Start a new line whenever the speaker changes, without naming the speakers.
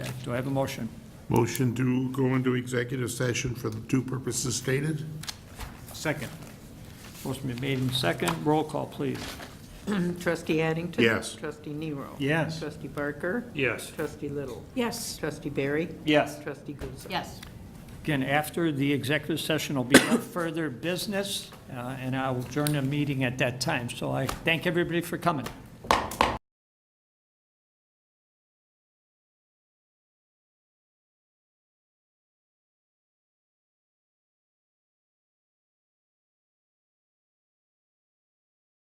Do I have a motion?
Motion to go into executive session for the two purposes stated?
Second. Motion been made in second. Roll call, please.
Trustee Addington?
Yes.
Trustee Nero?
Yes.
Trustee Barker?
Yes.
Trustee Little?
Yes.
Trustee Barry?
Yes.
Trustee Guzzo?
Yes.
Again, after the executive session will be no further business, uh, and I will adjourn the meeting at that time. So I thank everybody for coming.